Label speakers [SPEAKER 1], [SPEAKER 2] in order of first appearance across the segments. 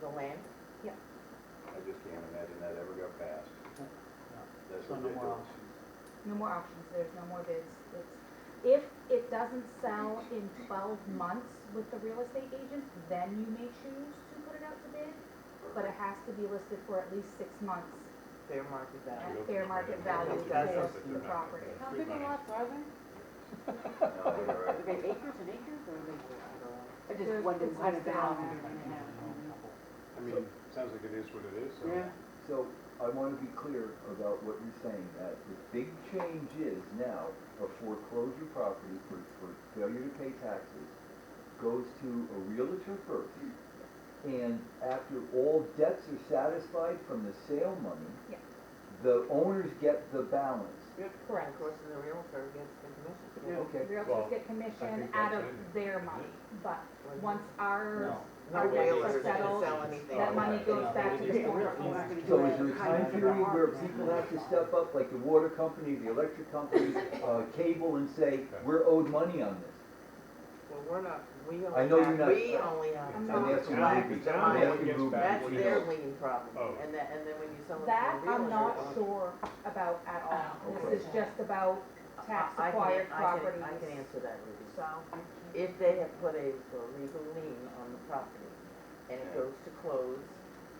[SPEAKER 1] the land?
[SPEAKER 2] I just can't imagine that ever got passed. That's
[SPEAKER 3] So no
[SPEAKER 2] ridiculous.
[SPEAKER 3] more options.
[SPEAKER 4] No more auctions, there's no more bids. It's, if it doesn't sell in twelve months with the real estate agent, then you may choose to put it out to bid, but it has to be listed for at least six months
[SPEAKER 1] Fair market value.
[SPEAKER 4] at fair market value
[SPEAKER 1] It does
[SPEAKER 4] for
[SPEAKER 1] something.
[SPEAKER 4] the property.
[SPEAKER 5] How big a lots are they?
[SPEAKER 2] No, they're
[SPEAKER 5] Are
[SPEAKER 2] right.
[SPEAKER 5] they acres and acres or are they? I
[SPEAKER 4] They're-
[SPEAKER 5] just wondered
[SPEAKER 4] it's
[SPEAKER 5] what
[SPEAKER 4] listed
[SPEAKER 5] about
[SPEAKER 4] on
[SPEAKER 5] them.
[SPEAKER 6] I mean, sounds like it is what it is, so.
[SPEAKER 5] Yeah.
[SPEAKER 7] So I want to be clear about what you're saying, that the big change is now a foreclosure property for, for failure to pay taxes goes to a realtor first. And after all debts are satisfied from the sale money,
[SPEAKER 4] Yeah.
[SPEAKER 7] the owners get the balance.
[SPEAKER 1] And of course, the realtor gets the commission.
[SPEAKER 5] Yeah.
[SPEAKER 7] Okay,
[SPEAKER 4] Realtors get commission
[SPEAKER 6] think
[SPEAKER 4] out of
[SPEAKER 6] that's it.
[SPEAKER 4] their money, but once ours,
[SPEAKER 3] No.
[SPEAKER 1] No
[SPEAKER 4] our debts
[SPEAKER 1] realtor
[SPEAKER 4] are
[SPEAKER 1] can
[SPEAKER 4] settled,
[SPEAKER 1] sell anything.
[SPEAKER 4] that money goes back to the
[SPEAKER 5] Yeah,
[SPEAKER 4] former
[SPEAKER 5] we're- we're not
[SPEAKER 4] owner.
[SPEAKER 5] gonna
[SPEAKER 7] so
[SPEAKER 5] do
[SPEAKER 7] is
[SPEAKER 5] that.
[SPEAKER 7] there a time period where people have to step up, like the water company, the electric company, uh, cable, and say, we're owed money on this?
[SPEAKER 1] Well, we're not, we
[SPEAKER 7] I know
[SPEAKER 1] only
[SPEAKER 7] you're
[SPEAKER 1] have,
[SPEAKER 7] not-
[SPEAKER 1] we only have.
[SPEAKER 4] I'm
[SPEAKER 7] And
[SPEAKER 4] not-
[SPEAKER 7] that's what
[SPEAKER 1] Back
[SPEAKER 7] we-
[SPEAKER 1] to
[SPEAKER 7] that's
[SPEAKER 1] mine.
[SPEAKER 7] what we-
[SPEAKER 1] That's
[SPEAKER 6] Well, you
[SPEAKER 1] their
[SPEAKER 6] know.
[SPEAKER 1] lien problem,
[SPEAKER 6] Oh.
[SPEAKER 1] and that, and then when you sell it to a
[SPEAKER 4] That
[SPEAKER 1] realtor.
[SPEAKER 4] I'm not
[SPEAKER 1] uh,
[SPEAKER 4] sure about at all. This is just about
[SPEAKER 1] Oh, I-
[SPEAKER 4] tax
[SPEAKER 1] I can-
[SPEAKER 4] acquired
[SPEAKER 1] I can-
[SPEAKER 4] properties.
[SPEAKER 1] I can answer that, Ruby.
[SPEAKER 4] So,
[SPEAKER 1] If they have put a legal lien on the property and it
[SPEAKER 2] Yeah.
[SPEAKER 1] goes to close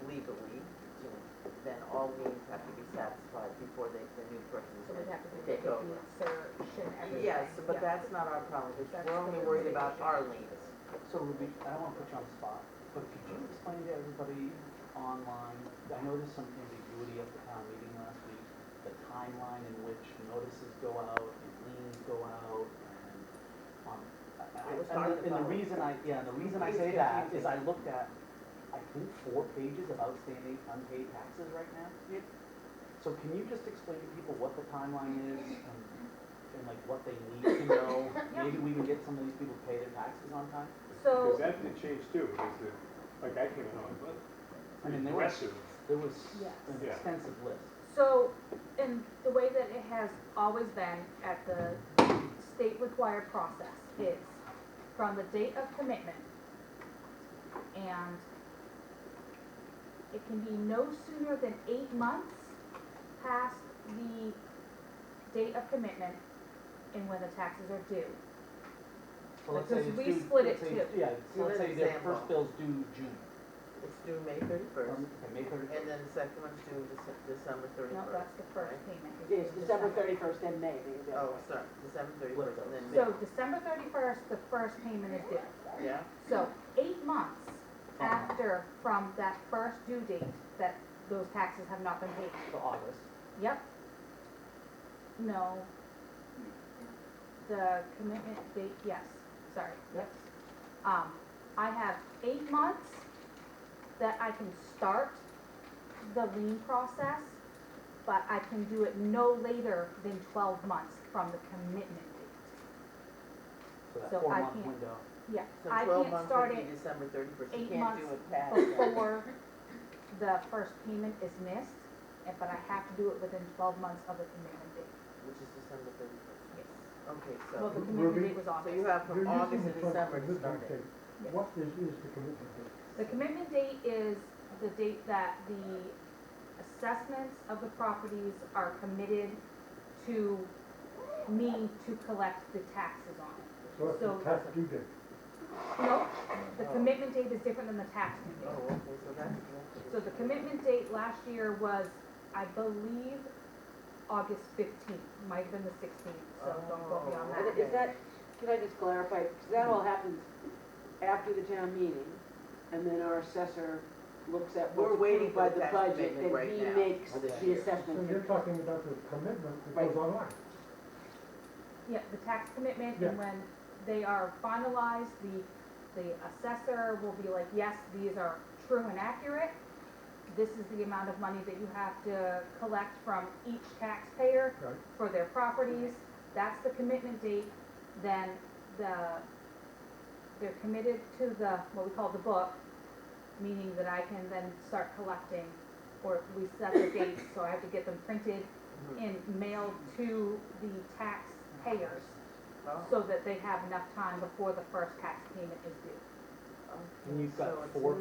[SPEAKER 1] legally, to- then all liens have to be satisfied before they, the new person
[SPEAKER 4] so we'd have to do the
[SPEAKER 1] take
[SPEAKER 4] deed
[SPEAKER 1] over.
[SPEAKER 4] search and everything.
[SPEAKER 1] Yes, but
[SPEAKER 4] Yeah.
[SPEAKER 1] that's not our problem, because
[SPEAKER 4] That's
[SPEAKER 1] we're only
[SPEAKER 4] the
[SPEAKER 1] worried about
[SPEAKER 4] litigation.
[SPEAKER 1] our liens.
[SPEAKER 3] So Ruby, I don't wanna put you on the spot, but could you explain to everybody online, I noticed some ambiguity at the town meeting last week, the timeline in which notices go out and liens go out and, um, I- I-
[SPEAKER 1] It was
[SPEAKER 3] and
[SPEAKER 1] hard
[SPEAKER 3] the-
[SPEAKER 1] to
[SPEAKER 3] and the
[SPEAKER 1] follow.
[SPEAKER 3] reason I, yeah, the reason I
[SPEAKER 1] It's
[SPEAKER 3] say that
[SPEAKER 1] confusing.
[SPEAKER 3] is I looked at, I think, four pages of outstanding unpaid taxes right now.
[SPEAKER 5] Yep.
[SPEAKER 3] So can you just explain to people what the timeline is and, and like what they need to know?
[SPEAKER 4] Yeah.
[SPEAKER 3] Maybe we can get some of these people to pay their taxes on time?
[SPEAKER 4] So-
[SPEAKER 6] Because that did change too, because the, like I came in on, but
[SPEAKER 3] I mean, they were-
[SPEAKER 6] aggressive.
[SPEAKER 3] There was
[SPEAKER 4] Yes.
[SPEAKER 3] an
[SPEAKER 6] Yeah.
[SPEAKER 3] extensive list.
[SPEAKER 4] So, in the way that it has always been at the state required process is from the date of commitment. And it can be no sooner than eight months past the date of commitment and when the taxes are due.
[SPEAKER 3] So let's
[SPEAKER 4] Because
[SPEAKER 3] say it's
[SPEAKER 4] we
[SPEAKER 3] due-
[SPEAKER 4] split
[SPEAKER 3] let's
[SPEAKER 4] it
[SPEAKER 3] say it's- Yeah, so
[SPEAKER 1] So
[SPEAKER 3] let's
[SPEAKER 1] an
[SPEAKER 3] say their
[SPEAKER 1] example.
[SPEAKER 3] first bill's due June,
[SPEAKER 1] It's due May thirty-first,
[SPEAKER 3] um, okay, May
[SPEAKER 1] and
[SPEAKER 3] thirty-first.
[SPEAKER 1] then the second one's due Dece- December
[SPEAKER 4] No,
[SPEAKER 1] thirty-first.
[SPEAKER 4] that's the first payment.
[SPEAKER 5] It's December thirty-first and May. they- they-
[SPEAKER 1] Oh, sorry, December thirty-first, and then
[SPEAKER 4] So
[SPEAKER 1] May,
[SPEAKER 4] December thirty-first, the first payment is due.
[SPEAKER 1] yeah?
[SPEAKER 4] So eight months
[SPEAKER 1] Uh-huh.
[SPEAKER 4] after from that first due date that those taxes have not been paid.
[SPEAKER 3] To August.
[SPEAKER 4] Yep. No. The commitment date, yes, sorry.
[SPEAKER 3] Yep.
[SPEAKER 4] Um, I have eight months that I can start the lien process, but I can do it no later than twelve months from the commitment date.
[SPEAKER 3] So that
[SPEAKER 4] So I
[SPEAKER 3] four-month
[SPEAKER 4] can't-
[SPEAKER 3] window.
[SPEAKER 4] Yeah,
[SPEAKER 1] So
[SPEAKER 4] I
[SPEAKER 1] twelve
[SPEAKER 4] can't
[SPEAKER 1] months
[SPEAKER 4] start
[SPEAKER 1] would
[SPEAKER 4] it
[SPEAKER 1] be December thirty-first, you
[SPEAKER 4] eight
[SPEAKER 1] can't do
[SPEAKER 4] months
[SPEAKER 1] it past that.
[SPEAKER 4] before the first payment is missed, and- but I have to do it within twelve months of the commitment date.
[SPEAKER 1] Which is December thirty-first.
[SPEAKER 4] Yes.
[SPEAKER 1] Okay,
[SPEAKER 4] Well, the
[SPEAKER 1] so,
[SPEAKER 4] commitment
[SPEAKER 8] Ruby?
[SPEAKER 4] date was
[SPEAKER 1] so you
[SPEAKER 4] August.
[SPEAKER 1] have from
[SPEAKER 8] You're using
[SPEAKER 1] August to
[SPEAKER 8] the term
[SPEAKER 1] December to
[SPEAKER 8] commitment
[SPEAKER 1] start it.
[SPEAKER 8] date.
[SPEAKER 4] Yes.
[SPEAKER 8] What is, is the commitment date?
[SPEAKER 4] The commitment date is the date that the assessments of the properties are committed to me to collect the taxes on it.
[SPEAKER 8] So that's
[SPEAKER 4] So-
[SPEAKER 8] the tax due date.
[SPEAKER 4] No, the
[SPEAKER 1] Oh.
[SPEAKER 4] commitment date is different than the tax due
[SPEAKER 1] Oh,
[SPEAKER 4] date.
[SPEAKER 1] okay, so that's.
[SPEAKER 4] So the commitment date last year was, I believe, August fifteenth, might have been the sixteenth, so don't go beyond
[SPEAKER 1] Oh.
[SPEAKER 4] that.
[SPEAKER 5] And is that, can I just clarify, because that all happens after the town meeting, and then our assessor looks at
[SPEAKER 1] We're
[SPEAKER 5] what's
[SPEAKER 1] waiting
[SPEAKER 5] approved
[SPEAKER 1] for
[SPEAKER 5] by
[SPEAKER 1] the
[SPEAKER 5] the
[SPEAKER 1] tax
[SPEAKER 5] budget,
[SPEAKER 1] commitment right
[SPEAKER 5] and he
[SPEAKER 1] now
[SPEAKER 5] makes
[SPEAKER 3] for this
[SPEAKER 5] the
[SPEAKER 3] year.
[SPEAKER 5] assessment.
[SPEAKER 8] So you're talking about the commitment that
[SPEAKER 5] Right.
[SPEAKER 8] goes online.
[SPEAKER 4] Yeah, the tax commitment, and
[SPEAKER 8] Yeah.
[SPEAKER 4] when they are finalized, the, the assessor will be like, yes, these are true and accurate. This is the amount of money that you have to collect from each taxpayer
[SPEAKER 8] Right.
[SPEAKER 4] for their properties. That's the commitment date, then the, they're committed to the, what we call the book, meaning that I can then start collecting, or we set the dates, so I have to get them printed and mailed to the taxpayers so that they have enough time before the first tax payment is due.
[SPEAKER 3] And you've got four